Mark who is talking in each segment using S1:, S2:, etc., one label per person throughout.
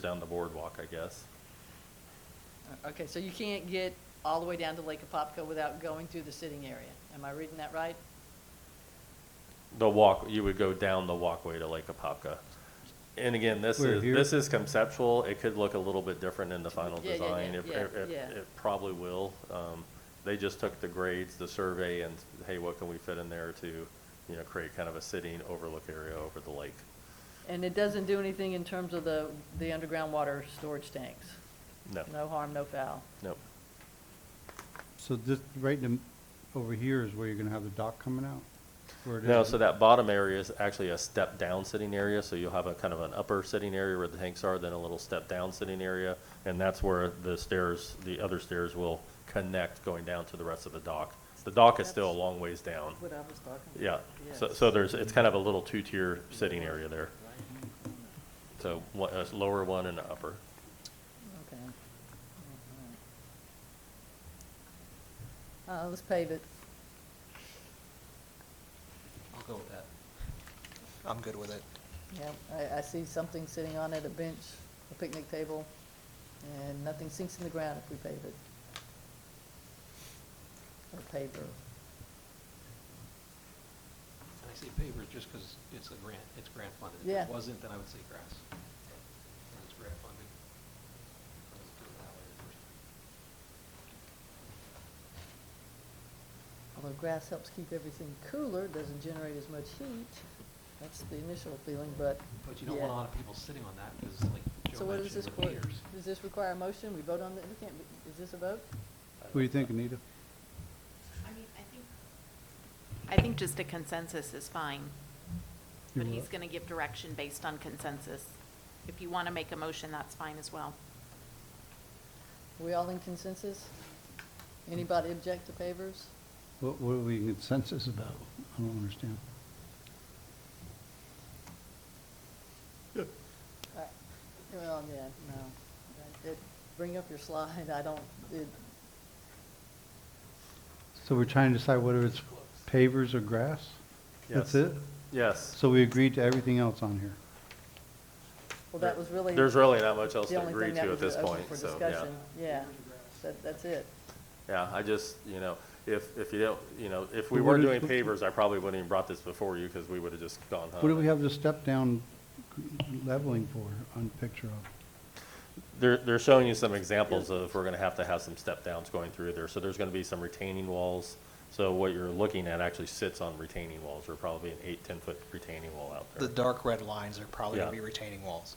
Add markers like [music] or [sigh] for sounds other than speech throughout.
S1: down the boardwalk, I guess.
S2: Uh, Okay, so you can't get all the way down to Lake Apopka without going through the sitting area. Am I reading that right?
S1: The walk, you would go down the walkway to Lake Apopka. And again, this
S3: We're
S1: is,
S3: here.
S1: this is conceptual. It could look a little bit different in the final
S2: Yeah, yeah, yeah,
S1: design. It-
S2: yeah,
S1: it- it-
S2: yeah.
S1: It probably will. Um, They just took the grades, the survey, and hey, what can we fit in there to, you know, create kind of a sitting overlook area over the lake?
S2: And it doesn't do anything in terms of the, the underground water storage tanks?
S1: No,
S2: No harm, no foul?
S1: no.
S3: So this, right in, the- over here is where you're gonna have the dock coming out? Where it
S1: No,
S3: is-
S1: so that bottom area is actually a step-down sitting area, so you'll have a kind of an upper sitting area where the tanks are, then a little step-down sitting area, and that's where the stairs, the other stairs will connect going down to the rest of the dock. The dock is still a long ways down,
S2: What I was talking
S1: yeah. So, so there's, it's kind of a little two-tier sitting area there. So, one, a lower one and an upper.
S2: Okay. Uh, let's pave it.
S4: I'll go with that. I'm good with it.
S2: Yeah, I, I see something sitting on it, a bench, a picnic table, and nothing sinks in the ground if we pave it. Or paver.
S4: And I say paver just because it's a grant, it's grant funded.
S2: Yeah.
S4: If it wasn't, then I would say grass. But It's grant funded. Let's do it that way
S2: Although
S4: first.
S2: grass helps keep everything cooler, doesn't generate as much heat, that's the initial feeling, but.
S4: But you don't want a
S2: yeah.
S4: lot of people sitting on that because like
S2: So
S4: Joe
S2: what is
S4: mentioned
S2: this,
S4: with
S2: for?
S4: meters.
S2: does this require a motion? We vote on it? We can't, is this a vote?
S3: What do you think, Anita?
S5: I mean, I think. I think just a consensus is fine,
S3: You
S5: but he's
S3: what?
S5: going to give direction based on consensus. If you want to make a motion, that's fine as well.
S2: We all in consensus? Anybody object to pavers?
S3: What, what are we in consensus about? I don't understand.
S2: Uh, Well, yeah, no. It- Bring up your slide, I don't, it,
S3: So we're trying to decide whether it's pavers or grass? That's
S1: Yes.
S3: it?
S1: Yes.
S3: So we agreed to everything else on here?
S2: well, that was really.
S1: There's really not much else
S2: the
S1: to
S2: only
S1: agree
S2: thing that
S1: to at
S2: was
S1: this
S2: open
S1: point,
S2: for
S1: so, yeah.
S2: discussion. Yeah, that, that's it.
S1: Yeah, I just, you know, if, if you don't, you know, if we
S3: But
S1: weren't
S3: what
S1: doing
S3: is-
S1: pavers, I probably wouldn't even brought this before you because we would have just gone home.
S3: What do we have the step down leveling for on picture of?
S1: They're, they're showing you some examples of, we're gonna have to have some step downs going through there. So there's gonna be some retaining walls. So what you're looking at actually sits on retaining walls. There'll probably be an eight, ten-foot retaining wall out
S4: The
S1: there.
S4: dark red lines are probably
S1: Yeah.
S4: going to be retaining walls.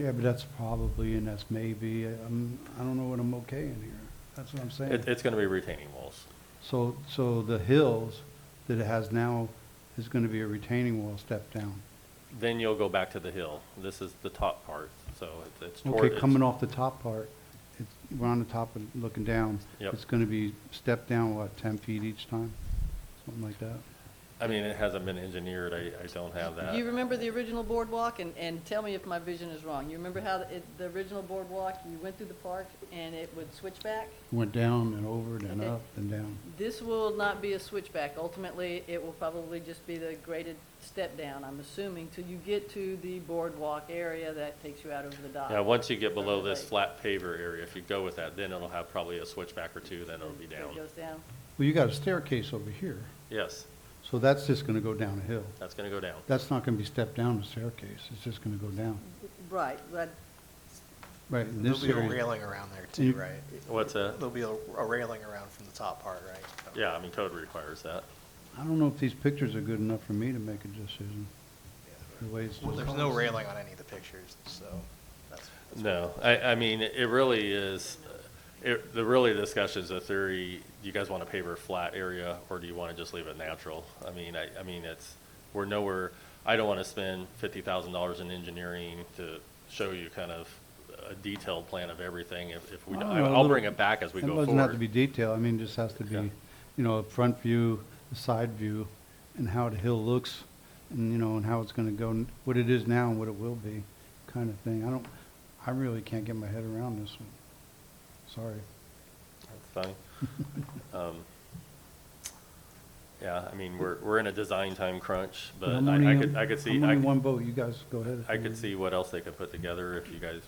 S3: Yeah, but that's probably and that's maybe, I'm, I don't know what I'm okay in here. That's what I'm saying.
S1: It, it's gonna be retaining walls.
S3: So, so the hills that it has now is gonna be a retaining wall step down.
S1: Then you'll go back to the hill. This is the top part, so it's- it's toward.
S3: Okay, coming off the top part, it's, we're on the top and looking down.
S1: Yep.
S3: It's gonna be step down, what, ten feet each time? Something like that?
S1: I mean, it hasn't been engineered. I, I don't have that.
S2: Do you remember the original boardwalk? And, and tell me if my vision is wrong. You remember how it, the original boardwalk, you went through the park and it would switch back?
S3: Went down and over, then
S2: Okay.
S3: up and down.
S2: This will not be a switchback. Ultimately, it will probably just be the graded step down, I'm assuming, till you get to the boardwalk area that takes you out over the dock.
S1: Yeah, once you get below
S2: Over the
S1: this
S2: lake.
S1: flat paver area, if you go with that, then it'll have probably a switchback or two, then it'll be
S2: So It
S1: down.
S2: goes down.
S3: Well, you got a staircase over here,
S1: Yes,
S3: so that's just gonna go down a hill.
S1: that's gonna go down.
S3: That's not gonna be stepped down a staircase, it's just gonna go down.
S2: Right, but
S3: Right, in
S4: There'll
S3: this
S4: be a
S3: area,
S4: railing around there too,
S3: Mm.
S4: right?
S1: What's that?
S4: There'll be a a railing around from the top part, right? So-
S1: Yeah, I mean, code requires that.
S3: I don't know if these pictures are good enough for me to make a decision. The way it's.
S4: Well, There's no railing on any of the pictures, so that's. that's
S1: No, I, I mean, it really is, it, the really discussion is a theory, do you guys want a paver flat area, or do you want to just leave it natural? I mean, I, I mean, it's, we're nowhere, I don't want to spend fifty thousand dollars in engineering to show you kind of a detailed plan of everything, if, if we,
S3: I
S1: don't-
S3: don't know, a
S1: I'll bring
S3: little-
S1: it back as we go
S3: It
S1: forward.
S3: doesn't have to be detailed, I mean, just has to be,
S1: Yeah.
S3: you know, a front view, a side view, and how the hill looks, and, you know, and how it's gonna go, n- what it is now and what it will be, kind of thing. I don't, I really can't get my head around this one. Sorry.
S1: That's fine. [laughs] Um, Yeah, I mean, we're, we're in a design time crunch, but
S3: I'm
S1: I, I
S3: only-
S1: could, I could see,
S3: I'm
S1: I
S3: only
S1: could-
S3: one vote, you guys go ahead. if
S1: I
S3: you
S1: could
S3: want.
S1: see what else they could put together if you guys